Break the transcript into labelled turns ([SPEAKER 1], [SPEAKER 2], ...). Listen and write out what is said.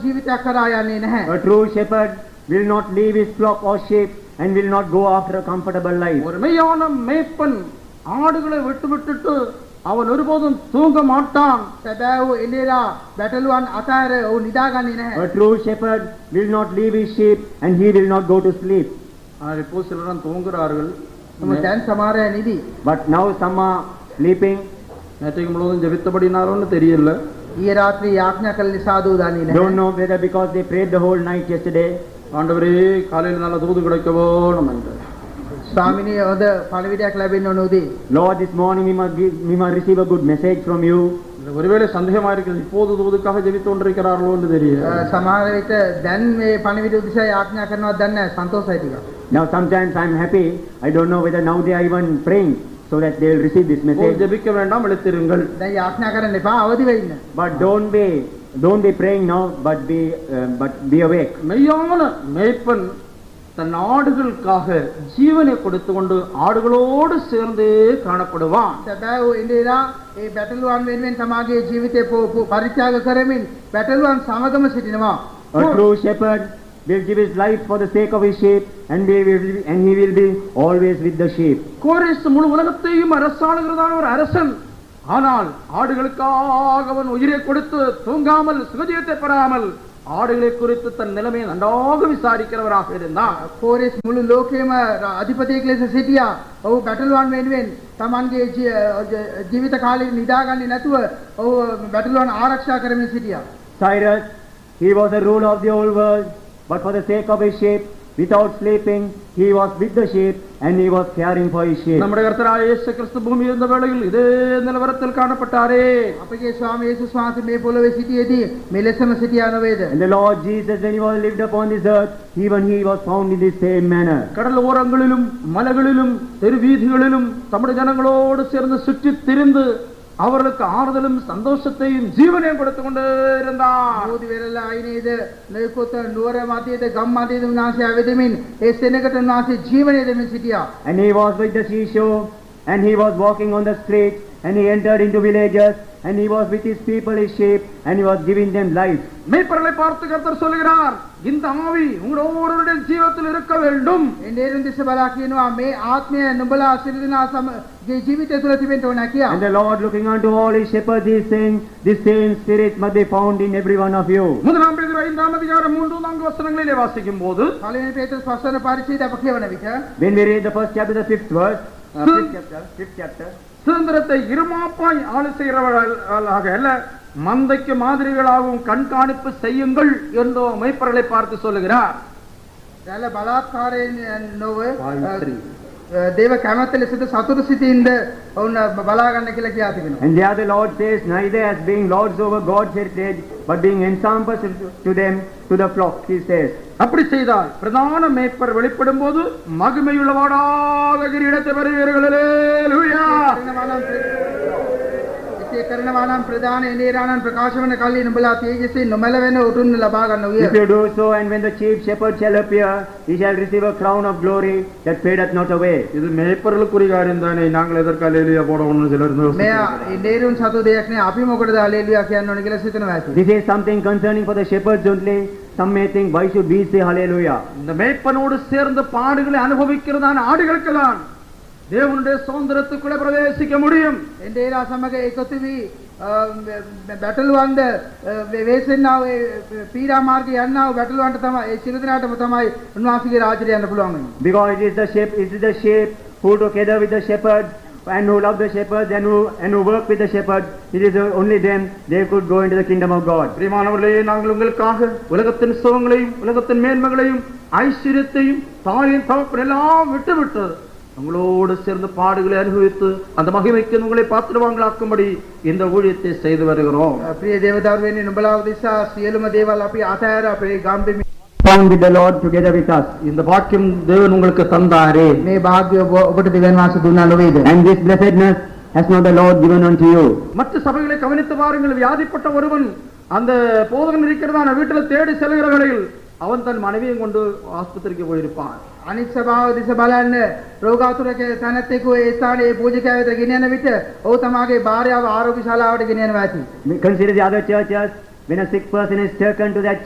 [SPEAKER 1] ජීවිතයක්කරායන්නේ නැහැ.
[SPEAKER 2] A true shepherd will not leave his flock or sheep and will not go after a comfortable life.
[SPEAKER 1] ஒருமையான மேய்ப்பன் ஆடுகளை விட்டுவிட்டுட்டு அவன் ஒருபோதும் தூங்க மாட்டான் සැබෑවූ එලේලා බැටලුවන් අතෑර ඔවු නිදාගන්නේ නැහැ.
[SPEAKER 2] A true shepherd will not leave his sheep and he will not go to sleep.
[SPEAKER 3] ஆனால் இப்போ சிலரும் தூங்குறார்கள்
[SPEAKER 1] நம்ம දැන් සමාරය නිදී.
[SPEAKER 2] But now some are sleeping,
[SPEAKER 3] நேற்றைக்கு முழுவதும் ஜெபித்தபடினாலும்னு தெரியல
[SPEAKER 1] ඊයේ රාත්‍රී යාඥා කළ නිසා දූදාන්නේ
[SPEAKER 2] don't
[SPEAKER 1] නැහැ.
[SPEAKER 2] know whether because they prayed the whole night yesterday.
[SPEAKER 3] ஆண்டவரே காலையில் நல்ல தூது கிடைக்கவோ நம்ம
[SPEAKER 1] ස්වාමිනී හොඳ පණවිඩයක් ලැබෙන්න ඕන උදේ.
[SPEAKER 2] Lord, this morning we must, give, we must receive a good message from you.
[SPEAKER 3] ஒருவேளை சந்தேகமா இருக்கிறது இப்போது தூதுக்காக ஜெபித்து கொண்டிருக்கிறார்களோ என்று
[SPEAKER 1] අ,
[SPEAKER 3] தெரியல
[SPEAKER 1] සමහර විට දැන් මේ පණවිඩ උදෙසා යාඥා කරනවා දැන් නැහැ සන්තෝෂයි ටිකක්.
[SPEAKER 2] Now sometimes I'm happy. I don't know whether now they are even praying so that they will receive this
[SPEAKER 3] இப்போது
[SPEAKER 2] message.
[SPEAKER 3] ஜெபிக்க வேண்டாம் இழுத்திருங்கள்
[SPEAKER 1] දැන් යාඥා කරන්න එපා අවදි වෙන්න.
[SPEAKER 2] But don't be don't be praying now, but be uh, but be awake.
[SPEAKER 3] மெய்யான மேய்ப்பன் தன் ஆடுகளுக்காக ஜீவனை கொடுத்து கொண்டு ஆடுகளோடு சேர்ந்தே காணப்படுவான்
[SPEAKER 1] සැබෑ වූ එලේලා ඒ බැටලුවන් වෙනුවෙන් තමාගේ ජීවිතය පෝ- පෝ- පරිත්‍යාග කරමින් බැටලුවන් සමගම සිටිනවා.
[SPEAKER 2] A true shepherd will give his life for the sake of his sheep, and we will be, and he will be always with the sheep.
[SPEAKER 3] கோரேஸ் முழு உலகத்தையும் அரசாளுகிறதான ஒரு அரசன் ஆனால் ஆடுகளுக்காக அவன் உயிரை கொடுத்து தூங்காமல் சுகஜீவத்தை பெறாமல் ஆடுகளை குறித்து தன் நிலைமையை நன்றாக விசாரிக்கிறவராக இருந்தான்
[SPEAKER 1] කෝරෙස් මුළු ලෝකයේම ර- අධිපතියෙක් ලෙස සිටියා. ඔහු බැටළුවන් වෙනුවෙන් තමන්ගේ ජී- ජ- ජීවිත කාලය නිදාගන්නේ නැතුව ඔහු බැටළුවන් ආරක්ෂා කරමින් සිටියා.
[SPEAKER 2] Cyrus, he was the ruler of the whole world, but for the sake of his sheep, without sleeping, he was with the sheep and he was caring for his sheep.
[SPEAKER 3] நம்முடைய கர்த்தராகிய இயேசு கிறிஸ்து பூமி இருந்த வேளையில் இதே நிலவரத்தில் காணப்பட்டாரே
[SPEAKER 1] අපගේ ස්වාමී යේසුස් වහන්සේ මේ පොළොවේ සිටියේදී මෙලෙසම සිටියා නොවේද?
[SPEAKER 2] And the Lord Jesus, when he was lived upon this earth, even he was found in the same manner.
[SPEAKER 3] கடல் ஓரங்களிலும் மலைகளிலும் தெருவீதிகளிலும் தமிழ் ஜனங்களோடு சேர்ந்து சுற்றித் திரிந்து அவர்களுக்கு ஆறுதலும் சந்தோஷத்தையும் ஜீவனையும் கொடுத்து கொண்டே இருந்தார்
[SPEAKER 1] බෝධි වෙරළා අයිනේද නොයෙකුත් නුවර මැදේද ගම් මැදේද උන්වහන්සේ ඇවිදමින් ඒ සෙනඟට උන්වහන්සේ ජීවනය දෙමින් සිටියා.
[SPEAKER 2] And he was with the seashore, and he was walking on the streets, and he entered into villages, and he was with his people, his sheep, and he was giving them life.
[SPEAKER 3] மெய்ப்பொருளை பார்த்து கர்த்தர் சொல்லுகிறார் இந்த ஆவி உங்கள் ஒவ்வொருவருடைய ஜீவத்தில் இருக்க வேண்டும்
[SPEAKER 1] එන්නේරුන් දිස බලා කියනවා මේ ආත්මය නුඹලා සිරිදනා සමගේ ජීවිතය තුළ තිබෙන්න ඕන කියලා.
[SPEAKER 2] And the Lord, looking unto all his shepherds, is saying, This same spirit must be found in every one of you.
[SPEAKER 3] முதலாம் பேதுரு ஐந்தாம் அதிகாரம் மூன்று நான்கு வசனங்களிலே வாசிக்கும் போது
[SPEAKER 1] පළවෙනි පේතෘස් පස්වන පරිච්ඡේදය අප කියවන විට
[SPEAKER 2] When we read the first chapter, the fifth verse, uh, fifth chapter, fifth chapter,
[SPEAKER 3] சுதந்திரத்தை இருமாப்பாய் ஆளு செய்கிறவர்களாக அல்ல மந்தைக்கு மாதிரிகளாகவும் கண்காணிப்பு செய்யுங்கள் என்று மெய்ப்பொருளை பார்த்து சொல்லுகிறார்
[SPEAKER 1] දැල බලාත්කාරයෙන් නොව
[SPEAKER 3] පාවිත්‍රි.
[SPEAKER 1] අ, දේව කැමැත්ත ලෙසද සතුට සිතින්ද ඔවුන් බලා ගන්න කියලා කියා තිබෙනවා.
[SPEAKER 2] And there the Lord says, neither as being lords over God's heritage, but being ensambles to them, to the flock, he says.
[SPEAKER 3] அப்படி செய்தால் பிரதான மேய்ப்பர் வெளிப்படும் போது மகிமையுள்ளவாடாக கிரீடத்தை பெறுவீர்கள் அல்லேலூயா.
[SPEAKER 1] කරනවා නම් ප්‍ර- එසේ කරනවා නම් ප්‍රධාන එනේරාණන් ප්‍රකාශ වන කල්ලි නුඹලා තේජසින් නොමැලවෙන උතුම් ලබා ගන්න
[SPEAKER 2] If
[SPEAKER 1] විය.
[SPEAKER 2] you do so, and when the chief shepherd shall appear, he shall receive a crown of glory that fadeth not away.
[SPEAKER 3] இது மேய்ப்பர்களுக்குரிய காரியம் தானே நாங்கள் எதற்கு அலேலியா போடணும்னு சிலர் வந்து
[SPEAKER 1] මෙයා එනේරුන් සතු දෙයක් නෑ අපි මොකටද හලෙලුයා කියන්න ඕන කියලා සිතනවා ඇති.
[SPEAKER 2] This is something concerning for the shepherds only. Some may think, why should we say hallelujah?
[SPEAKER 3] இந்த மேய்ப்பனோடு சேர்ந்து பாடுகளை அனுபவிக்கிறதான ஆடுகளுக்கெல்லாம் தேவனுடைய சுதந்திரத்துக்குள்ளே பிரவேசிக்க முடியும்
[SPEAKER 1] එන්ඩේලා සමඟ එකතු වී බැටලුවන්ද වේසෙන්නාව පීරාමාර්ග යන්නාව බැටලුවන්ට තම ඒ සිරදනාටම තමයි උන්වහන්සගේ රාජරය යන්න පුළුවන්
[SPEAKER 2] Because it is the sheep, it is the sheep who together with the shepherds and who love the shepherds and who and who work with the shepherds, it is only them they could go into the kingdom of God.
[SPEAKER 3] பிரியமானவர்களே நாங்கள் உங்களுக்காக உலகத்தின் சுகங்களையும் உலகத்தின் மேன்மைகளையும் ஐஸ்வர்யத்தையும் தாயின் தகப்பன் எல்லாம் விட்டுவிட்டு உங்களோடு சேர்ந்து பாடுகளை அனுபவித்து அந்த மகிமைக்கு உங்களை பாத்திரவாங்களாக்கும்படி இந்த ஊழியத்தை செய்து வருகிறோம்
[SPEAKER 1] ප්‍රිය දේවදර්වෙන්නේ නොබලාව දෙසා සියලුම දේවල් අපි අතෑර අපේ ගම්පිමි
[SPEAKER 2] Found with the Lord together with us.
[SPEAKER 3] இந்த பாக்கியம் தேவன் உங்களுக்கு தந்தாரே
[SPEAKER 1] මේ භාග්‍ය ඔබ- ඔබට දෙවන්වාස දුන්නා නොවේද.
[SPEAKER 2] And this blessedness has not the Lord given unto you.
[SPEAKER 3] மற்ற சபைகளை கவனித்து பாருங்கள் வியாதிப்பட்ட ஒருவன் அந்த போதகன் இருக்கிறதான வீட்டில் தேடி செல்கிற வேளையில் அவன் தன் மனைவியும் கொண்டு ஆஸ்பத்திரிக்கு போயிருப்பான்
[SPEAKER 1] අනිත් සභාව දෙස බලන්න රෝගාතුරක තැනැත්තෙකු ඒ ස්ථානයේ පූජකයට ගෙනයන විට ඔහු තමාගේ භාර්යාව ආරෝග්‍ය ශාලාවට ගෙනයනවා ඇති.
[SPEAKER 2] Consider the other churches. When a sick person is taken to that